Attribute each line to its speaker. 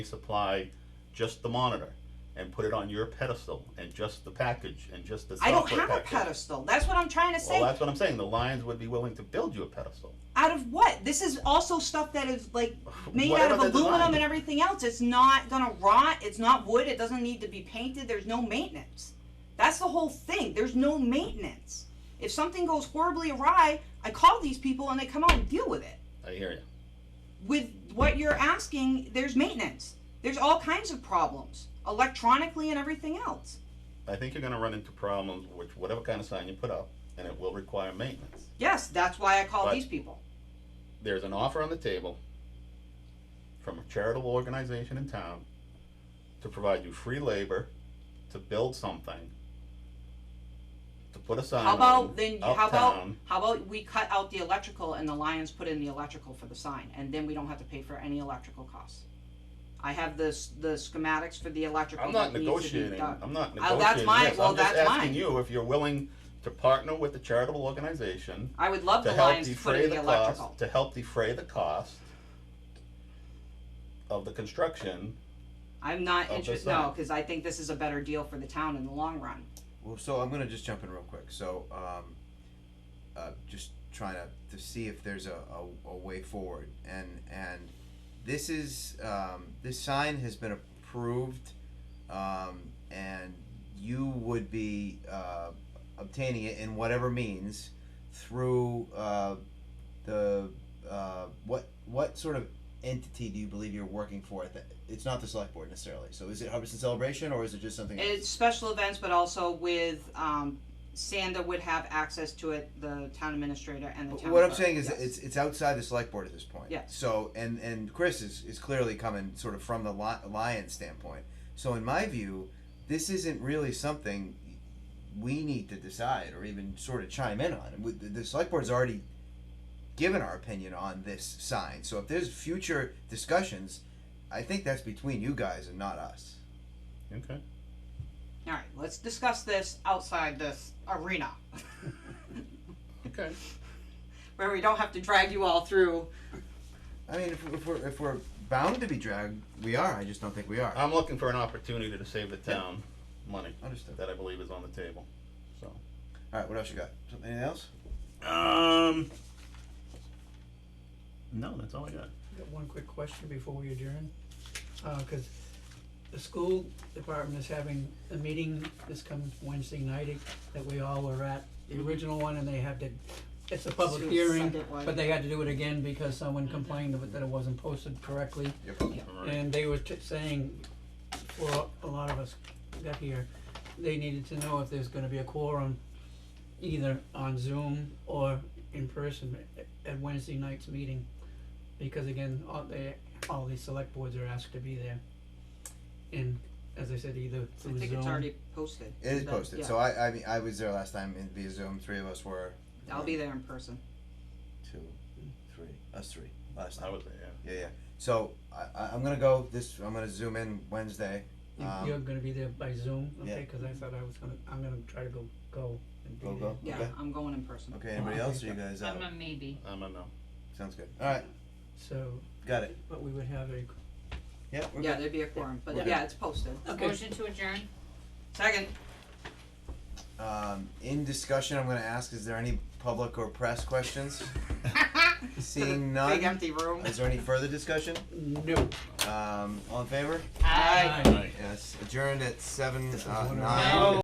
Speaker 1: supply just the monitor and put it on your pedestal and just the package and just the
Speaker 2: I don't
Speaker 1: software
Speaker 2: have a
Speaker 1: package.
Speaker 2: pedestal. That's what I'm trying to say.
Speaker 1: Well, that's what I'm saying. The Lions would be willing to build you a pedestal.
Speaker 2: out of what? This is also stuff that is like made out
Speaker 1: Whatever
Speaker 2: of
Speaker 1: the
Speaker 2: aluminum
Speaker 1: design.
Speaker 2: and everything else. It's not gonna rot. It's not wood. It doesn't need to be painted. There's no maintenance. That's the whole thing. There's no maintenance. If something goes horribly awry, I call these people and they come out and deal with it.
Speaker 1: I hear you.
Speaker 2: With what you're asking, there's maintenance. There's all kinds of problems electronically and everything else.
Speaker 1: I think you're going to run into problems with whatever kind of sign you put up, and it will require maintenance.
Speaker 2: Yes, that's why I call
Speaker 1: But-
Speaker 2: these people.
Speaker 1: There's an offer on the table from a charitable organization in town to provide you free labor to build something, to put a sign
Speaker 2: How
Speaker 1: on
Speaker 2: about then? you- How about
Speaker 1: Um, uptown.
Speaker 2: how about we cut out the electrical and the Lions put in the electrical for the sign, and then we don't have to pay for any electrical costs. I have the s- the schematics for the electrical.
Speaker 1: I'm not
Speaker 2: that needs to be
Speaker 1: negotiating.
Speaker 2: done.
Speaker 1: I'm not
Speaker 2: Uh,
Speaker 1: negotiating.
Speaker 2: that's my-
Speaker 1: this.
Speaker 2: well,
Speaker 1: I'm just
Speaker 2: that's
Speaker 1: asking
Speaker 2: mine.
Speaker 1: you if you're willing to partner with a charitable organization
Speaker 2: I would love
Speaker 1: to
Speaker 2: the
Speaker 1: help
Speaker 2: Lions to put
Speaker 1: defray
Speaker 2: in
Speaker 1: the
Speaker 2: the
Speaker 1: cost
Speaker 2: electrical.
Speaker 1: to help defray the cost of the construction.
Speaker 2: I'm not
Speaker 1: the
Speaker 2: interested.
Speaker 1: sign.
Speaker 2: No, because I think this is a better deal for the town in the long run.
Speaker 3: Well, so I'm gonna just jump in real quick. So, um, uh, just trying to, to see if there's a, a, a way forward, and and this is um, this sign has been approved, um, and you would be uh, obtaining it in whatever means through uh, the uh, what what sort of entity do you believe you're working for? At the, it's not the select board necessarily. So, is it Hubbardston Celebration or is it just something? else?
Speaker 2: It's special events, but also with um, Sanda would have access to it. The town administrator and the
Speaker 3: But
Speaker 2: town.
Speaker 3: what I'm
Speaker 2: clerk,
Speaker 3: saying is
Speaker 2: yes.
Speaker 3: it's it's outside the select board at this point.
Speaker 2: Yeah.
Speaker 3: So and and Chris is, is clearly coming sort of from the li- Lions standpoint. So in my view, this isn't really something we need to decide or even sort of chime in on. We- The the select board's already given our opinion on this sign. So if there's future discussions, I think that's between you guys and not us.
Speaker 1: Okay.
Speaker 2: all right. Let's discuss this outside this arena.
Speaker 1: Okay.
Speaker 2: where we don't have to drag you all through.
Speaker 3: I mean, if, if we're if we're bound to be dragged, we are. I just don't think we are.
Speaker 1: I'm looking for an opportunity to save the town money
Speaker 3: Understood.
Speaker 1: that I believe is on the table. So.
Speaker 3: All right. What else you got? Something anything else?
Speaker 1: Um. No, that's all I got.
Speaker 4: Got one quick question before we adjourn, Uh 'cause cause the school department is having a meeting this comes Wednesday night it- that we all were at, the original one, and they had to, it's a public
Speaker 2: Sue
Speaker 4: hearing,
Speaker 2: sent it wide.
Speaker 4: but they had to do it again because someone complained of it- that it wasn't posted correctly.
Speaker 3: Yep.
Speaker 1: All right.
Speaker 4: And they were t- saying, for a lot of us got here, they needed to know if there's gonna be a quorum, either on Zoom or in person at- at Wednesday night's meeting. Because again, all they, all these select boards are asked to be there. And as I said, either
Speaker 2: I
Speaker 4: through
Speaker 2: think it's
Speaker 4: Zoom,
Speaker 2: already posted.
Speaker 3: It is
Speaker 2: But,
Speaker 3: posted.
Speaker 2: yeah,
Speaker 3: So I, I mean, I was there last time in via Zoom. Three of us were.
Speaker 2: I'll be there in person.
Speaker 3: Two, three. Us three. Last
Speaker 1: I
Speaker 3: time.
Speaker 1: was there.
Speaker 3: Yeah, yeah. So I, I, I'm gonna go this. I'm gonna zoom in Wednesday.
Speaker 4: You-
Speaker 3: Um,
Speaker 4: you're gonna be there by Zoom,
Speaker 3: yeah.
Speaker 4: okay, cause I thought I was gonna, I'm gonna try to go, go and be
Speaker 3: Go,
Speaker 4: there.
Speaker 3: go.
Speaker 2: Yeah,
Speaker 3: Okay.
Speaker 2: I'm going in person.
Speaker 3: Okay. Anybody else? Are you guys out?
Speaker 5: I'm a maybe.
Speaker 1: Yeah. I'm a no.
Speaker 3: Sounds good. All right.
Speaker 4: So,
Speaker 3: Got it.
Speaker 4: but we would have a
Speaker 3: Yeah. We're
Speaker 2: Yeah,
Speaker 3: good.
Speaker 2: there'd be a quorum, but
Speaker 3: We're
Speaker 2: yeah, it's posted.
Speaker 4: Okay.
Speaker 5: Motion to adjourn?
Speaker 2: Second.
Speaker 3: Um, in discussion, I'm gonna ask: Is there any public or press questions?
Speaker 2: Big
Speaker 3: Seeing none.
Speaker 2: empty room.
Speaker 3: Is there any further discussion?
Speaker 4: no.
Speaker 3: Um, all in favor?
Speaker 2: Aye.
Speaker 3: Yes. Adjourned at seven. Uh,
Speaker 4: one of
Speaker 3: nine.
Speaker 4: my-